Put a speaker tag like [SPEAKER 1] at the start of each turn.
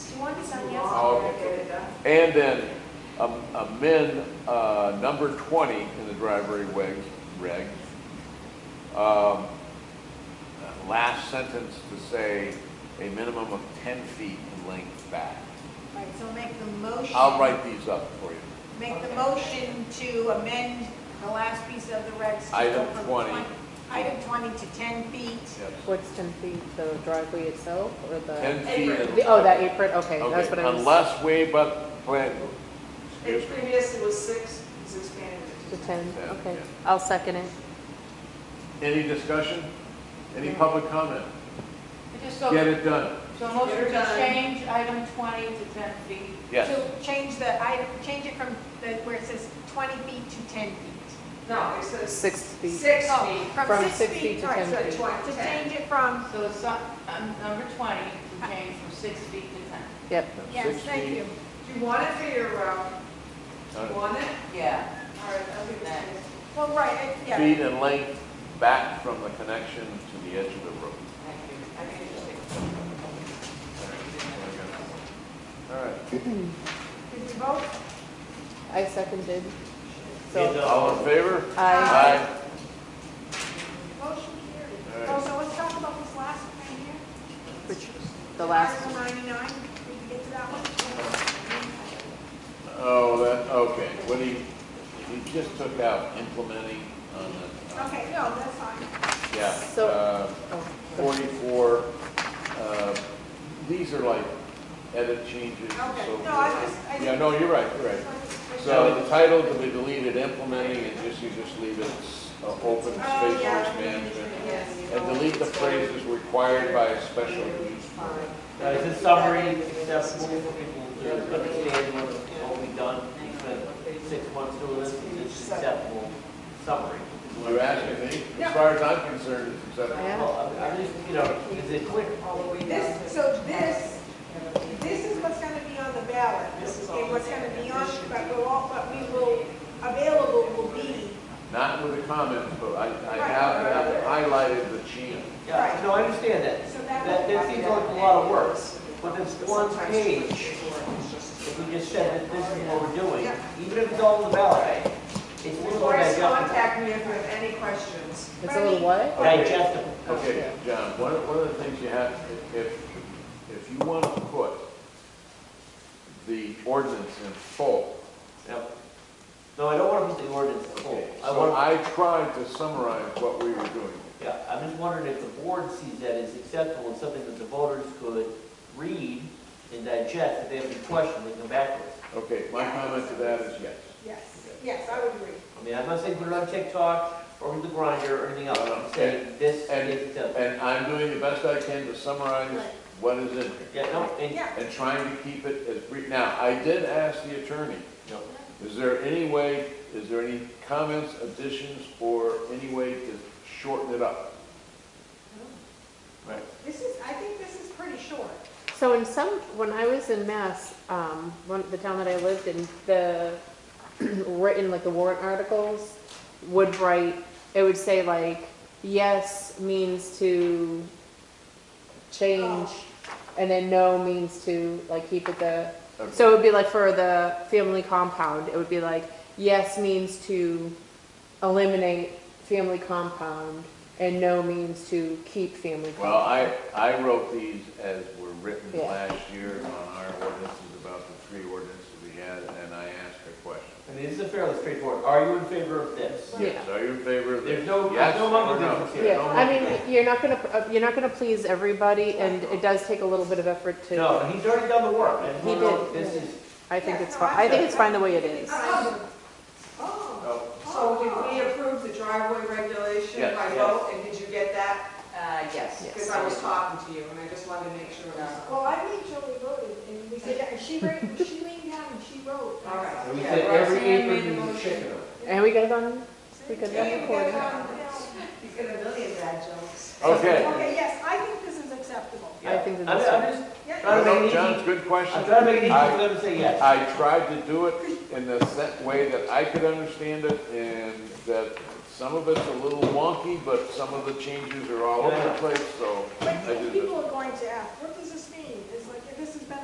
[SPEAKER 1] And then am- amend uh, number 20 in the driveway regs, regs. Um, Last sentence to say a minimum of 10 feet in length back.
[SPEAKER 2] Right, so make the motion.
[SPEAKER 1] I'll write these up for you.
[SPEAKER 2] Make the motion to amend the last piece of the regs. to go
[SPEAKER 1] Item
[SPEAKER 2] from
[SPEAKER 1] 20.
[SPEAKER 2] Item 20 to 10 feet.
[SPEAKER 3] What's 10 feet, the driveway itself or the?
[SPEAKER 1] 10 feet. in-
[SPEAKER 3] The- Oh, that apron, okay, that's what
[SPEAKER 1] Okay,
[SPEAKER 3] I was.
[SPEAKER 1] unless waived by the plan, excuse
[SPEAKER 4] It
[SPEAKER 1] me.
[SPEAKER 4] previously was six, it's expanded
[SPEAKER 3] The
[SPEAKER 4] to 10.
[SPEAKER 3] 10,
[SPEAKER 1] Yeah,
[SPEAKER 3] okay,
[SPEAKER 1] yeah.
[SPEAKER 3] I'll second it.
[SPEAKER 1] Any discussion? Any
[SPEAKER 3] No.
[SPEAKER 1] public comment?
[SPEAKER 5] I just
[SPEAKER 1] Get
[SPEAKER 5] so,
[SPEAKER 1] it done.
[SPEAKER 5] so motion
[SPEAKER 4] You're
[SPEAKER 5] to
[SPEAKER 4] done.
[SPEAKER 5] change item twenty to ten feet.
[SPEAKER 1] Yes.
[SPEAKER 2] To change the item, change it from the, where it says 20 feet to 10 feet.
[SPEAKER 4] No, it says.
[SPEAKER 3] Six feet.
[SPEAKER 4] Six
[SPEAKER 2] Oh,
[SPEAKER 4] feet.
[SPEAKER 3] From six feet to
[SPEAKER 2] right,
[SPEAKER 3] 10
[SPEAKER 2] so
[SPEAKER 3] feet.
[SPEAKER 4] Twen-
[SPEAKER 2] To
[SPEAKER 4] ten.
[SPEAKER 2] change it from,
[SPEAKER 5] So it's, not- um, number twenty, to change from six feet to ten.
[SPEAKER 3] Yep,
[SPEAKER 2] yes,
[SPEAKER 1] Six
[SPEAKER 2] thank
[SPEAKER 1] feet.
[SPEAKER 2] you.
[SPEAKER 4] Do you want it for your, um, do you
[SPEAKER 1] Uh,
[SPEAKER 4] want it?
[SPEAKER 5] Yeah.
[SPEAKER 4] All right, I'll give it to you.
[SPEAKER 2] Well, right, it- yeah.
[SPEAKER 1] Feet in length back from the connection to the edge of the road.
[SPEAKER 4] I can just take it.
[SPEAKER 1] All right.
[SPEAKER 2] Did we vote?
[SPEAKER 3] I seconded. So,
[SPEAKER 1] All in favor?
[SPEAKER 3] I,
[SPEAKER 1] Aye.
[SPEAKER 2] Motion carried.
[SPEAKER 1] All
[SPEAKER 2] Oh,
[SPEAKER 1] right.
[SPEAKER 2] so let's talk about this last one here.
[SPEAKER 3] which, the last,
[SPEAKER 2] Article 99, did you get to that one?
[SPEAKER 1] Oh, that, okay, what he, he just took out implementing on the.
[SPEAKER 2] Okay, no, that's fine.
[SPEAKER 1] Yeah.
[SPEAKER 3] So-
[SPEAKER 1] uh,
[SPEAKER 3] oh, the-
[SPEAKER 1] 44, uh, these are like edit changes and
[SPEAKER 2] Okay.
[SPEAKER 1] so forth.
[SPEAKER 2] No, I just- I
[SPEAKER 1] Yeah,
[SPEAKER 2] didn't-
[SPEAKER 1] no, you're right, you're right. So the title to be deleted, implementing, and just, you just leave it uh,
[SPEAKER 2] Oh,
[SPEAKER 1] open space
[SPEAKER 2] yeah.
[SPEAKER 1] force management.
[SPEAKER 4] Yes.
[SPEAKER 1] And delete the phrases required by a special use permit.
[SPEAKER 6] Now, is this summary acceptable for people to understand what, what we've done, even six months to this, it's acceptable summary?
[SPEAKER 1] You asking me? As far as I'm concerned, it's acceptable.
[SPEAKER 3] Yeah.
[SPEAKER 6] Well, I- I just, you know, is it clear?
[SPEAKER 2] This, so this, this is what's gonna be on the ballot. Okay, what's gonna be on, but we'll, all- but we will, available will be,
[SPEAKER 1] Not with the comments, but I, I have, I have highlighted the change.
[SPEAKER 6] Yeah, no, I understand that.
[SPEAKER 2] so
[SPEAKER 6] That,
[SPEAKER 2] that,
[SPEAKER 6] that seems like a lot of work, but this one page, if we just said that this is what we're doing, even if it's all in the ballot, it's still
[SPEAKER 4] Always
[SPEAKER 6] digestible.
[SPEAKER 4] contact me if you have any questions.
[SPEAKER 3] it's a little what?
[SPEAKER 6] Digestible.
[SPEAKER 1] Okay, John, one of, one of the things you have, if- if, if you want to put the ordinance in full,
[SPEAKER 6] Yep. No, I don't want to put the ordinance in full. I
[SPEAKER 1] so
[SPEAKER 6] want-
[SPEAKER 1] I tried to summarize what we were doing.
[SPEAKER 6] Yeah, I'm just wondering if the board sees that as acceptable and something that the voters could read and digest, if they have any questions, they come back with.
[SPEAKER 1] Okay, my comment to that is yes.
[SPEAKER 2] yes, yes, I would agree.
[SPEAKER 6] I mean, I'm not saying put it on TikTok or with the grinder or anything else, I'm saying this
[SPEAKER 1] And-
[SPEAKER 6] is acceptable.
[SPEAKER 1] And I'm doing the best I can to summarize what is in here
[SPEAKER 6] Yeah, no, and,
[SPEAKER 2] Yeah,
[SPEAKER 1] and trying to keep it as brief. Now, I did ask the attorney,
[SPEAKER 6] no,
[SPEAKER 1] is there any way, is there any comments, additions, or any way to shorten it up?
[SPEAKER 6] right.
[SPEAKER 2] this is, I think this is pretty short.
[SPEAKER 3] So in some, when I was in Mass, um, one, the town that I lived in, the written like the warrant articles would write, it would say like, yes means to change, and then no means to like keep it the.
[SPEAKER 1] Okay.
[SPEAKER 3] So it would be like for the family compound, it would be like, yes means to eliminate family compound, and no means to keep family compound.
[SPEAKER 1] Well, I, I wrote these as were written
[SPEAKER 3] Yeah.
[SPEAKER 1] last year on our ordinances about the three ordinances we had, and I asked a question.
[SPEAKER 6] I mean, this is fairly straightforward, are you in favor of this?
[SPEAKER 3] Yeah.
[SPEAKER 1] Yes, are you in favor of this?
[SPEAKER 6] There's no-
[SPEAKER 1] Yes
[SPEAKER 6] no longer
[SPEAKER 1] or no?
[SPEAKER 6] difference here.
[SPEAKER 1] Yeah,
[SPEAKER 3] Yeah,
[SPEAKER 1] no
[SPEAKER 3] I
[SPEAKER 1] longer-
[SPEAKER 3] mean, you're not gonna, uh, you're not gonna please everybody, and it does take a little bit of effort to,
[SPEAKER 6] No, and he's already done the work, I just
[SPEAKER 3] He
[SPEAKER 6] want to know
[SPEAKER 3] did.
[SPEAKER 6] if this is,
[SPEAKER 3] I think it's fine, I think it's fine the way it is.
[SPEAKER 2] Oh, oh,
[SPEAKER 6] oh,
[SPEAKER 4] So did we approve the driveway regulation
[SPEAKER 1] Yes.
[SPEAKER 4] by
[SPEAKER 6] Yes.
[SPEAKER 4] vote, and did you get that?
[SPEAKER 5] Uh, yes.
[SPEAKER 4] Because I was talking to you, and I just wanted to make sure. it was-
[SPEAKER 2] well, I made sure we voted, and we said, and she wrote, she leaned down and she wrote.
[SPEAKER 4] All right.
[SPEAKER 6] and we
[SPEAKER 4] Yeah,
[SPEAKER 6] said every
[SPEAKER 4] Roxanne
[SPEAKER 6] acre
[SPEAKER 4] made the
[SPEAKER 6] you
[SPEAKER 4] motion.
[SPEAKER 6] chicken.
[SPEAKER 3] And we got it on, we got
[SPEAKER 2] Yeah,
[SPEAKER 3] that
[SPEAKER 2] you guys
[SPEAKER 3] recorded.
[SPEAKER 2] are on the bill.
[SPEAKER 4] You get a million bad jokes.
[SPEAKER 1] Okay.
[SPEAKER 2] Okay, yes, I think this is acceptable.
[SPEAKER 3] I think
[SPEAKER 6] I'm,
[SPEAKER 3] that
[SPEAKER 6] I'm
[SPEAKER 3] this-
[SPEAKER 6] just,
[SPEAKER 2] Yeah,
[SPEAKER 6] Trying to make
[SPEAKER 1] No,
[SPEAKER 6] it
[SPEAKER 1] John's
[SPEAKER 6] easy,
[SPEAKER 1] good
[SPEAKER 6] I'm
[SPEAKER 1] question.
[SPEAKER 6] trying to make it easy
[SPEAKER 1] I-
[SPEAKER 6] for them to say yes.
[SPEAKER 1] I tried to do it in the set way that I could understand it, and that some of it's a little wonky, but some of the changes are all over the place, so I
[SPEAKER 2] but
[SPEAKER 1] did this.
[SPEAKER 2] people are going to ask, what does this